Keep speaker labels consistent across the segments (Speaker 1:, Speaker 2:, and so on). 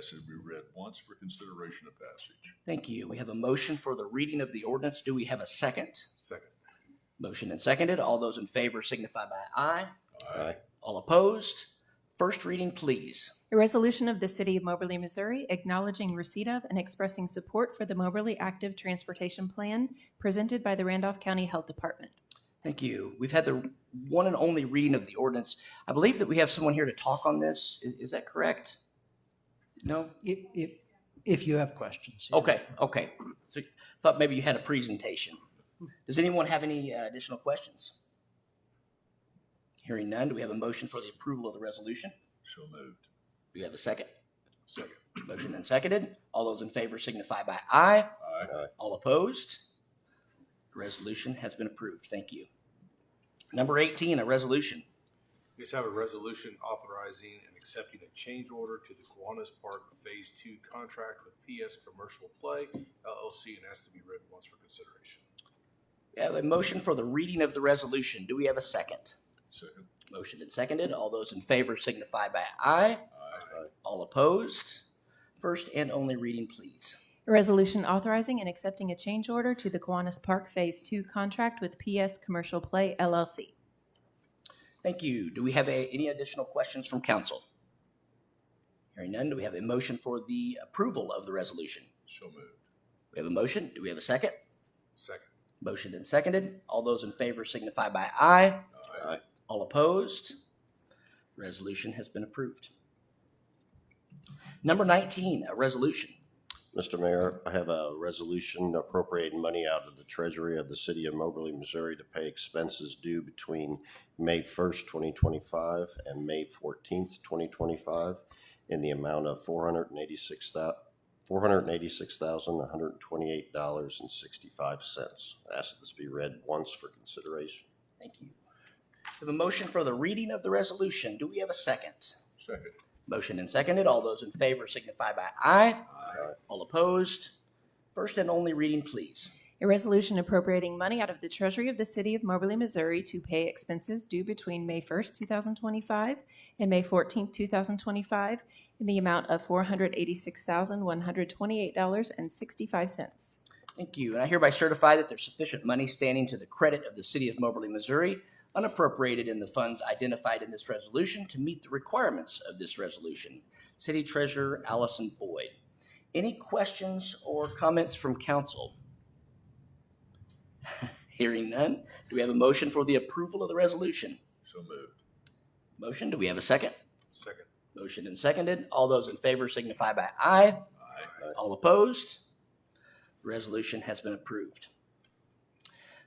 Speaker 1: should be read once for consideration of passage.
Speaker 2: Thank you. We have a motion for the reading of the ordinance. Do we have a second?
Speaker 1: Second.
Speaker 2: Motion and seconded. All those in favor signify by aye.
Speaker 3: Aye.
Speaker 2: All opposed? First reading, please.
Speaker 4: A resolution of the City of Moberly, Missouri acknowledging receipt of and expressing support for the Moberly Active Transportation Plan presented by the Randolph County Health Department.
Speaker 2: Thank you. We've had the one and only reading of the ordinance. I believe that we have someone here to talk on this. Is, is that correct? No?
Speaker 5: If, if, if you have questions. yeah.
Speaker 2: Okay, okay. So thought maybe you had a presentation. Does anyone have any uh, additional questions? Hearing none, do we have a motion for the approval of the resolution?
Speaker 1: So moved.
Speaker 2: Do we have a second?
Speaker 1: Second.
Speaker 2: Motion and seconded. All those in favor signify by aye.
Speaker 1: Aye.
Speaker 2: All opposed? The Resolution has been approved. Thank you. Number 18, a resolution.
Speaker 6: We just have a resolution authorizing and accepting a change order to the Kiwanis Park Phase Two contract with PS Commercial Play LLC and has to be read once for consideration.
Speaker 2: We have a motion for the reading of the resolution. Do we have a second?
Speaker 1: Second.
Speaker 2: Motion and seconded. All those in favor signify by aye.
Speaker 1: Aye.
Speaker 2: All opposed? First and only reading, please.
Speaker 4: A resolution authorizing and accepting a change order to the Kiwanis Park Phase Two contract with PS Commercial Play LLC.
Speaker 2: Thank you. Do we have a- any additional questions from council? Hearing none, do we have a motion for the approval of the resolution?
Speaker 1: So moved.
Speaker 2: We have a motion. Do we have a second?
Speaker 6: Second.
Speaker 2: Motion and seconded. All those in favor signify by aye.
Speaker 3: Aye.
Speaker 2: All opposed? Resolution has been approved. Number 19, a resolution.
Speaker 3: Mr. Mayor, I have a resolution appropriating money out of the treasury of the city of Moberly, Missouri to pay expenses due between May first, twenty twenty-five and May fourteenth, twenty twenty-five in the amount of four hundred and eighty-six four hundred and eighty-six thousand, one hundred and twenty-eight dollars and sixty-five cents. Ask this be read once for consideration.
Speaker 2: Thank you. We have a motion for the reading of the resolution. Do we have a second?
Speaker 1: Second.
Speaker 2: Motion and seconded. All those in favor signify by aye. All opposed? First and only reading, please.
Speaker 4: A resolution appropriating money out of the Treasury of the City of Moberly, Missouri to pay expenses due between May 1st, 2025 and May 14th, 2025 in the amount of $486,128.65.
Speaker 2: Thank you. And I hereby certify that there's sufficient money standing to the credit of the City of Moberly, Missouri, unappropriated in the funds identified in this resolution to meet the requirements of this resolution. City Treasurer Allison Boyd. Any questions or comments from council? Hearing none, do we have a motion for the approval of the resolution?
Speaker 1: So moved.
Speaker 2: Motion, do we have a second?
Speaker 6: Second.
Speaker 2: Motion and seconded. All those in favor signify by aye.
Speaker 1: Aye.
Speaker 2: All opposed? Resolution has been approved.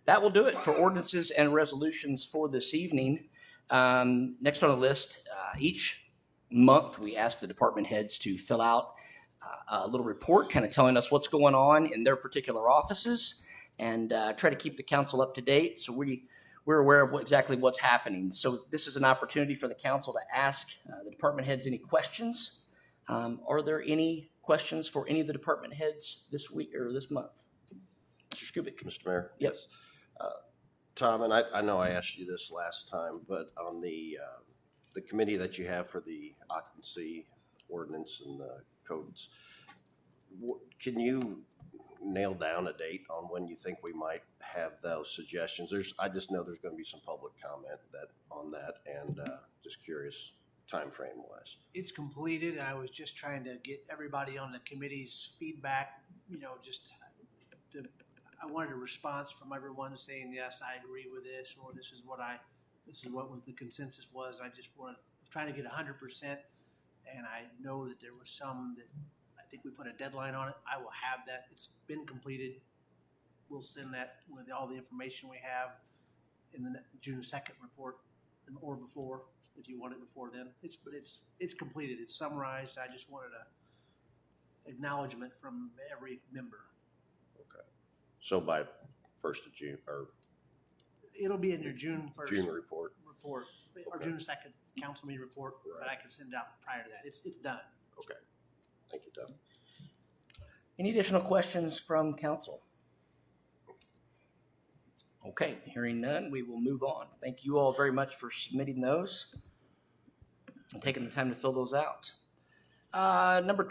Speaker 2: That will do it for ordinances and resolutions for this evening. Um, Next on the list, uh, each month, we ask the department heads to fill out uh, a little report, kind of telling us what's going on in their particular offices and uh, try to keep the council up to date. So we, we're aware of what, exactly what's happening. So this is an opportunity for the council to ask uh, the department heads any questions. Um, are there any questions for any of the department heads this week or this month? Mr. Skubic?
Speaker 3: Mr. Mayor?
Speaker 2: Yes.
Speaker 3: Tom, and I, I know I asked you this last time, but on the, um, the committee that you have for the occupancy ordinance and the codes, wh- can you nail down a date on when you think we might have those suggestions? There's, I just know there's gonna be some public comment that, on that, and, uh, just curious timeframe wise.
Speaker 5: It's completed. I was just trying to get everybody on the committee's feedback, you know, just the, I wanted a response from everyone saying, yes, I agree with this, or this is what I, this is what was the consensus was. I just wanted, was trying to get hundred percent. And I know that there was some that, I think we put a deadline on it. I will have that. It's been completed. We'll send that with all the information we have in the ne- June second report and- or before if you want it before then. It's, but it's, it's completed, it's summarized, I just wanted a acknowledgement from every member.
Speaker 3: So by first of June, or
Speaker 5: It'll be in your June first
Speaker 3: June report,
Speaker 5: report, or
Speaker 3: Okay.
Speaker 5: June second council meeting report, but I
Speaker 3: Right.
Speaker 5: can send it out prior to that, it's, it's done.
Speaker 3: thank you, Tom.
Speaker 2: Any additional questions from council? Okay, hearing none, we will move on. Thank you all very much for submitting those and taking the time to fill those out. Uh, Number